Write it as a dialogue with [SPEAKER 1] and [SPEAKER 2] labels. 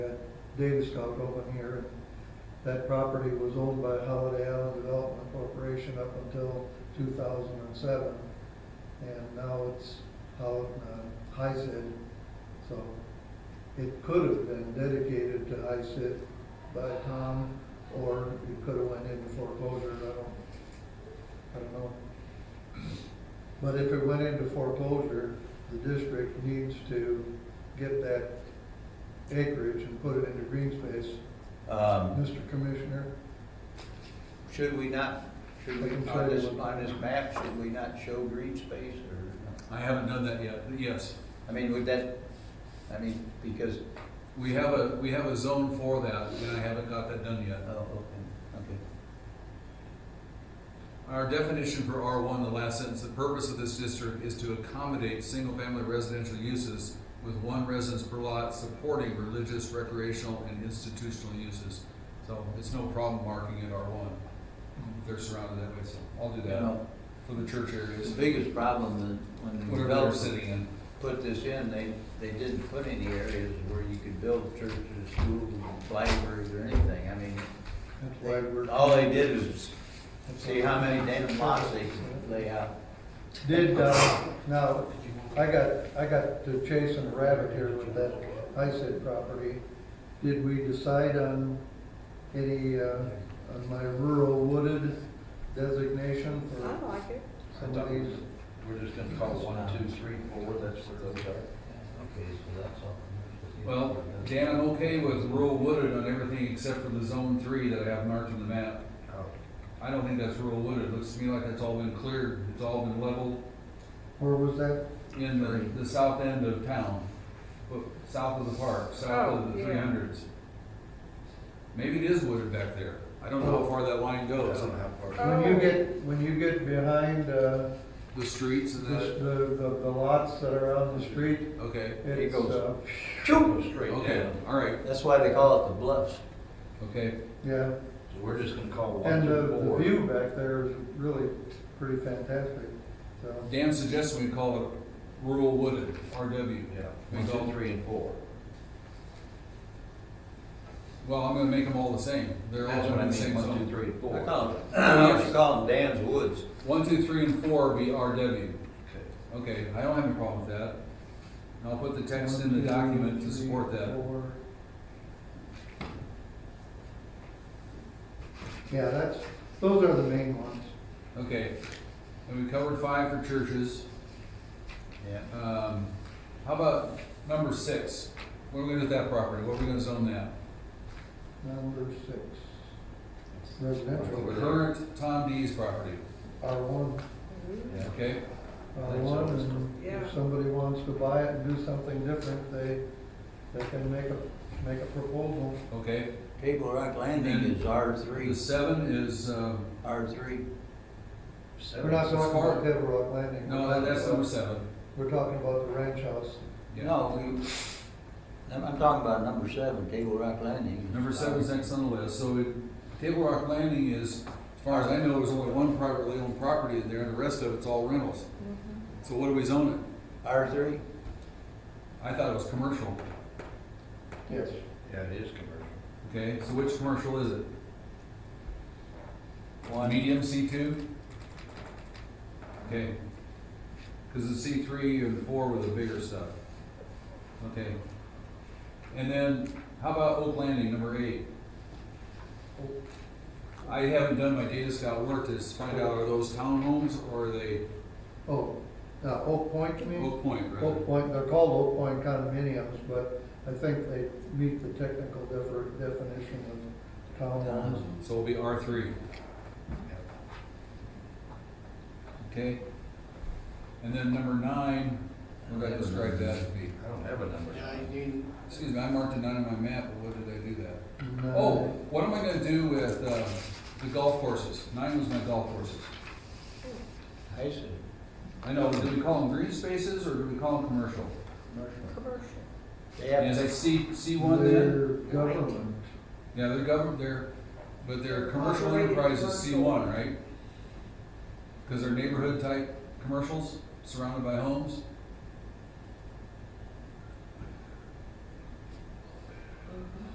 [SPEAKER 1] Davis Talk open here. That property was owned by Holiday Island Development Corporation up until two thousand and seven. And now it's out in HICID, so it could have been dedicated to HICID by Tom, or it could have went into foreclosure, I don't, I don't know. But if it went into foreclosure, the district needs to get that acreage and put it into green space.
[SPEAKER 2] Um,
[SPEAKER 1] Mr. Commissioner,
[SPEAKER 2] Should we not, should we, on this, on this map, should we not show green space or?
[SPEAKER 3] I haven't done that yet, but yes.
[SPEAKER 2] I mean, would that, I mean, because,
[SPEAKER 3] We have a, we have a zone for that, and I haven't got that done
[SPEAKER 2] oh,
[SPEAKER 3] yet.
[SPEAKER 2] okay, okay.
[SPEAKER 3] Our definition for R one, the last sentence, the purpose of this district is to accommodate single-family residential uses with one residence per lot supporting religious, recreational, and institutional uses. So it's no problem marking it R one. They're surrounded that way, so I'll do
[SPEAKER 2] You
[SPEAKER 3] that
[SPEAKER 2] know,
[SPEAKER 3] for the church
[SPEAKER 2] the
[SPEAKER 3] areas,
[SPEAKER 2] biggest problem that when the
[SPEAKER 3] whatever they're
[SPEAKER 2] developers
[SPEAKER 3] sitting in.
[SPEAKER 2] put this in, they, they didn't put any areas where you could build churches, schools, libraries or anything. I mean,
[SPEAKER 1] that's why we're.
[SPEAKER 2] they- all they did is Oh, see how many damn lots they could lay out.
[SPEAKER 1] Did, uh, now, I got, I got to chasing a rabbit here with that ISID property. Did we decide on any, uh, on my rural wooded designation
[SPEAKER 4] I
[SPEAKER 1] for
[SPEAKER 4] like it.
[SPEAKER 1] some of these?
[SPEAKER 5] We're just gonna call one, two, three, four, that's what those are.
[SPEAKER 2] Okay, so that's all.
[SPEAKER 3] Well, Dan, I'm okay with rural wooded on everything except for the zone three that I have marked on the map.
[SPEAKER 2] Oh,
[SPEAKER 3] I don't think that's rural wooded, it looks to me like that's all been cleared, it's all been leveled
[SPEAKER 1] Where was that?
[SPEAKER 3] in the, the south end of town, but south of the park, south of
[SPEAKER 4] Oh,
[SPEAKER 3] the
[SPEAKER 4] yeah.
[SPEAKER 3] three hundreds. Maybe it is wooded back there, I don't know how far that line goes,
[SPEAKER 1] When you get, when you get behind, uh,
[SPEAKER 3] the streets and
[SPEAKER 1] this,
[SPEAKER 3] the,
[SPEAKER 1] the, the the lots that are on the street,
[SPEAKER 3] okay,
[SPEAKER 1] it's,
[SPEAKER 2] goes.
[SPEAKER 1] uh,
[SPEAKER 2] Choo, straight
[SPEAKER 3] okay,
[SPEAKER 2] down.
[SPEAKER 3] all right,
[SPEAKER 2] That's why they call it the bluffs.
[SPEAKER 3] okay.
[SPEAKER 1] yeah.
[SPEAKER 5] So we're just gonna call one,
[SPEAKER 1] And the,
[SPEAKER 5] two,
[SPEAKER 1] the
[SPEAKER 5] four.
[SPEAKER 1] view back there is really pretty fantastic, so.
[SPEAKER 3] Dan suggests we call it rural wooded, RW.
[SPEAKER 5] Yeah, one, two, three, and four.
[SPEAKER 3] Well, I'm gonna make them all the same, they're all
[SPEAKER 5] That's what
[SPEAKER 3] in
[SPEAKER 5] I
[SPEAKER 3] the same
[SPEAKER 5] mean,
[SPEAKER 3] zone.
[SPEAKER 5] one, two, three, and
[SPEAKER 2] I
[SPEAKER 5] four.
[SPEAKER 2] call them, I used to call them Dan's Woods.
[SPEAKER 3] One, two, three, and four be
[SPEAKER 5] Okay.
[SPEAKER 3] RW. Okay, I don't have a problem with that. And I'll put the text in the document to support that.
[SPEAKER 1] Yeah, that's, those are the main ones.
[SPEAKER 3] Okay, and we covered five for churches.
[SPEAKER 2] Yeah.
[SPEAKER 3] Um, how about number six? What are we gonna do with that property? What are we gonna zone that?
[SPEAKER 1] Number six. Residential,
[SPEAKER 5] Over there.
[SPEAKER 3] Current Tom D's property,
[SPEAKER 1] R one,
[SPEAKER 4] Mm-hmm.
[SPEAKER 5] Yeah.
[SPEAKER 3] okay?
[SPEAKER 1] R one, and
[SPEAKER 4] Yeah.
[SPEAKER 1] if somebody wants to buy it and do something different, they, they can make a, make a proposal.
[SPEAKER 3] Okay,
[SPEAKER 2] Table Rock Landing is R three,
[SPEAKER 3] the seven is, uh,
[SPEAKER 2] R three.
[SPEAKER 1] We're not
[SPEAKER 3] Seven.
[SPEAKER 1] talking about Table Rock Landing.
[SPEAKER 3] no, that- that's number seven.
[SPEAKER 1] We're talking about the ranch house.
[SPEAKER 3] Yeah.
[SPEAKER 2] No, we, I'm, I'm talking about number seven, Table Rock Landing.
[SPEAKER 3] Number seven's next on the list, so it, Table Rock Landing is, as far as I know, there's only one privately owned property in there, and the rest of it's all rentals. So what do we zone it?
[SPEAKER 2] R three?
[SPEAKER 3] I thought it was commercial,
[SPEAKER 1] Yes.
[SPEAKER 5] Yeah, it is commercial.
[SPEAKER 3] okay, so which commercial is it? Medium C two? Okay, cause the C three and four were the bigger stuff, okay. And then, how about Oak Landing, number eight? Oh, I haven't done my data scout work to find out are those townhomes or are they
[SPEAKER 1] Oh, now Oak Point, you mean?
[SPEAKER 3] Oak Point, rather?
[SPEAKER 1] Oak Point, they're called Oak Point condominiums, but I think they meet the technical defer- definition of townhomes.
[SPEAKER 3] So it'll be R three. Okay? And then number nine, we're gonna strike that, as B.
[SPEAKER 5] I don't have a number.
[SPEAKER 3] excuse me, I marked a nine on my map, but what did I do that?
[SPEAKER 1] No.
[SPEAKER 3] Oh, what am I gonna do with, uh, the golf courses? Nine was my golf courses.
[SPEAKER 2] I see,
[SPEAKER 3] I know, do we call them green spaces or do we call them commercial?
[SPEAKER 2] commercial.
[SPEAKER 4] Commercial.
[SPEAKER 2] They
[SPEAKER 3] And is
[SPEAKER 2] have,
[SPEAKER 3] that C, C one then?
[SPEAKER 1] They're government,
[SPEAKER 3] Yeah, they're government, they're, but they're commercial
[SPEAKER 4] Operating
[SPEAKER 3] enterprises, C
[SPEAKER 4] commercial.
[SPEAKER 3] one, right? Cause they're neighborhood type commercials surrounded by homes?
[SPEAKER 4] Mm-hmm.